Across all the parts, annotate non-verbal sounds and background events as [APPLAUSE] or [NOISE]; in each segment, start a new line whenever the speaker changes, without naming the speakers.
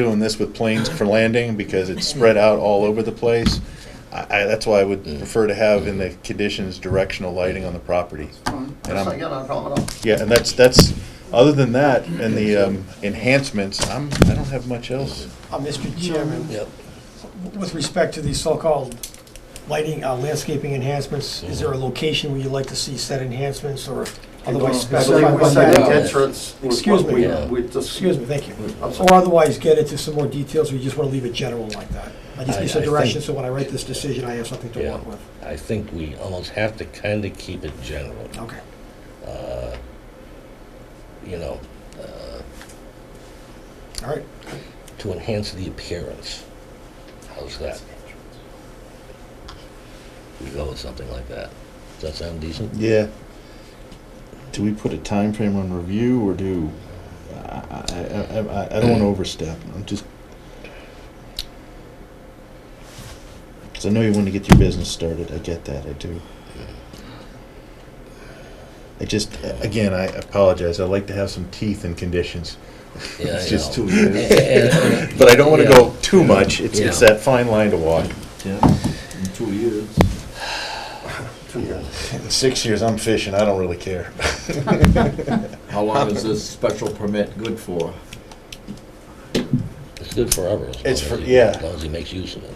doing this with planes for landing because it's spread out all over the place. I, I, that's why I would prefer to have in the conditions directional lighting on the property.
Fine.
And I'm-
That's not, yeah, not a problem at all.
Yeah, and that's, that's, other than that, and the um, enhancements, I'm, I don't have much else.
Uh, Mr. Chairman, with respect to these so-called lighting, uh, landscaping enhancements,
Mm-hmm.
is there a location where you'd like to see said enhancements or otherwise
I think we
specified?
said
by that?
entrance was
Excuse me.
what we,
Yeah.
we just.
Excuse me, thank you.
I'm sorry.
Or otherwise get into some more details, or you just want to leave it general like that? I just
I-
need some
I think-
direction, so when I write this decision, I have something to
Yeah.
work with.
I think we almost have to kind of keep it general.
Okay.
Uh, You know, uh,
All right,
to enhance the appearance. How's that? We go with something like that. Does that sound
[LAUGHS]
decent?
Yeah. Do we put a time frame on review or do, I, I, I, I- I don't
Uh,
wanna overstep, I'm just. Cause I know you wanna get your business started, I get that, I do. I just, again, I apologize, I like to have some teeth in conditions.
Yeah,
It's
I
just
know.
too, but
[LAUGHS]
[LAUGHS]
And-
I don't wanna
Yeah.
go too much, it's, it's
Yeah.
that fine line to walk.
Yeah, in two
[SIGHS]
years.
Two years.
In six years, I'm fishing, I don't really care.
How long is this special permit good for?
It's good forever. as long
It's
as
for-
he-
yeah.
As long as he makes use of it.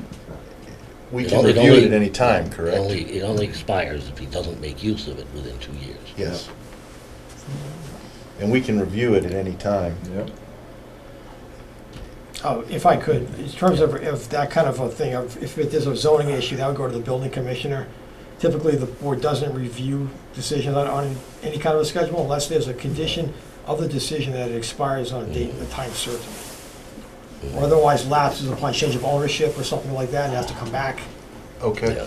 We
It
can
only-
review it
only-
at any time, correct?
It only, it only expires if he doesn't make use of it within two years.
Yes. And we can review it at any time.
Yep.
Oh, if I could, in terms of, of that kind of a thing, of- if it is a zoning issue, that would go to the building commissioner. Typically, the board doesn't review decisions on, on any kind of a schedule unless there's a condition of the decision that it expires on a date and a time certain. Or otherwise lapses upon change of ownership or something like that, and has to come back.
Okay.
Yeah.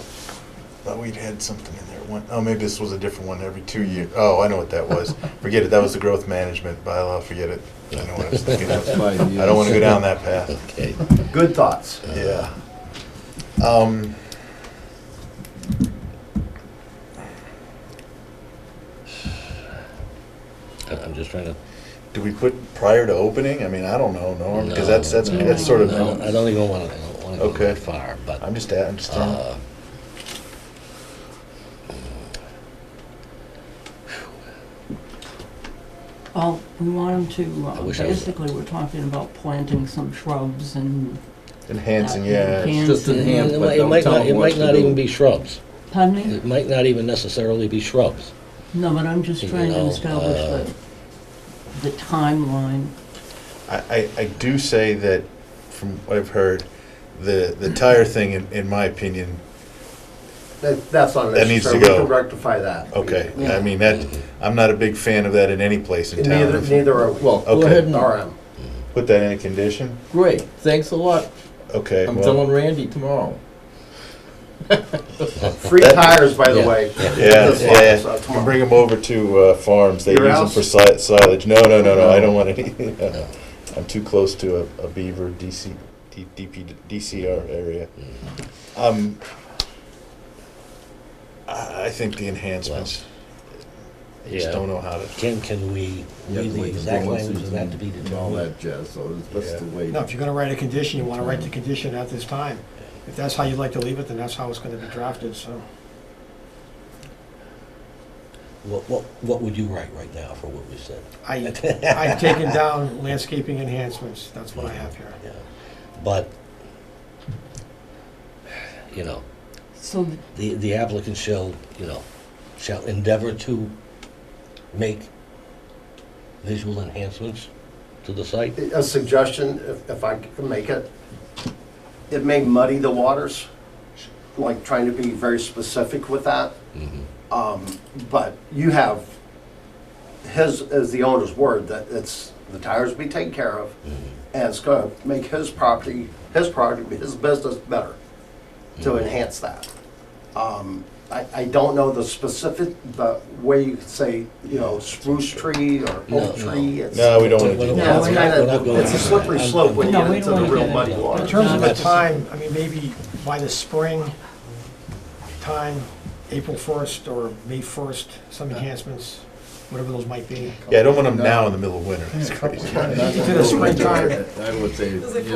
Thought we'd had something in there. One, oh, maybe this was a different one, every two years. Oh, I know what that [LAUGHS] was. Forget it, that was the growth management bylaw, forget it. I know what I was [LAUGHS] thinking of.
Five years.
I don't want to go down that path.
[LAUGHS] Okay.
Good thoughts.
Yeah. Um.
I- I'm just trying to
Do we put prior to opening? I mean, I don't know, Norm, because that's, that's,
No,
that's sort
no, I
of,
don't even want to, I don't want to go
Okay.
that far, but,
I'm just, at- I'm just, throwing-
uh,
Well, we want them to,
I
uh,
wish I was-
basically, we're talking about planting some shrubs and,
enhancing, yeah. it's-
Just enhance,
it
but
might- it
don't
might
tell
not, it
'em what
might
to
not
do.
even be shrubs.
pardon me?
It might not even necessarily be shrubs.
No, but I'm just
You
trying to
know,
establish
uh,
the, the timeline.
I, I, I do say that, from what I've heard, the, the tire thing, in, in my opinion,
That, that's not an
That
issue,
needs
sir.
to
We can
go. Oh,
rectify that.
okay, I
Yeah.
mean, that, I'm not a big fan of that in any place in
And Neither,
town.
neither are we.
Well, go
Okay.
ahead and,
RM.
Put that in a condition?
great, thanks a lot.
Okay,
I'm
well,
telling Randy tomorrow.
Free tires, by the
Yeah.
way.
yeah,
This lot,
yeah,
so
you
uh, tomorrow.
can bring them over to, uh, farms, they use
Your
them
house?
for si- silage, no, no, no, no, I don't want any, [LAUGHS]
No.
I'm too close to a, a beaver DC, D- DP, DCR area. Um, I, I think the enhancements, I just
Yeah.
don't know how to.
Can, can we,
Yeah,
read the
wait,
exact
well,
language of that to be
and All
determined?
that jazz, so that's
Yeah.
the way.
Now, if you're gonna write a condition, you wanna write the condition at this time. If that's how you'd like to leave it, then that's how it's gonna be drafted, so.
What, what, what would you write right now for what we
[LAUGHS]
said?
I, I've taken down landscaping enhancements, that's what I have here.
Yeah. But, you know,
So, th-
the, the applicant shall, you know, shall endeavor to make visual enhancements to the site.
A suggestion, if, if I can make it, it may muddy the waters, like trying to be very specific with that.
Mm-hmm.
Mhm.
Um, But you have, his, is the owner's word, that it's, the tires be taken care of,
Mm-hmm.
and it's gonna make his property, his property, his business better, to enhance that. Um, I, I don't know the specific, the way you could say, you know, spruce tree or
No,
oak tree. it's-
No, we don't want to do
Well, well,
Yeah,
that.
it's
we're
kind
not- we're not
of,
going
it's a
there.
slippery
I'm-
slope when you
No,
get
we
into
don't
the
wanna
real
get
muddy
into it.
water.
In terms of the
That's-
time, I mean, maybe by the spring time, April 1st or May 1st, some enhancements. whatever those might be.
Yeah, I don't want them now in the middle of winter. That's crazy.
Into the springtime.
I would say,
Does it
you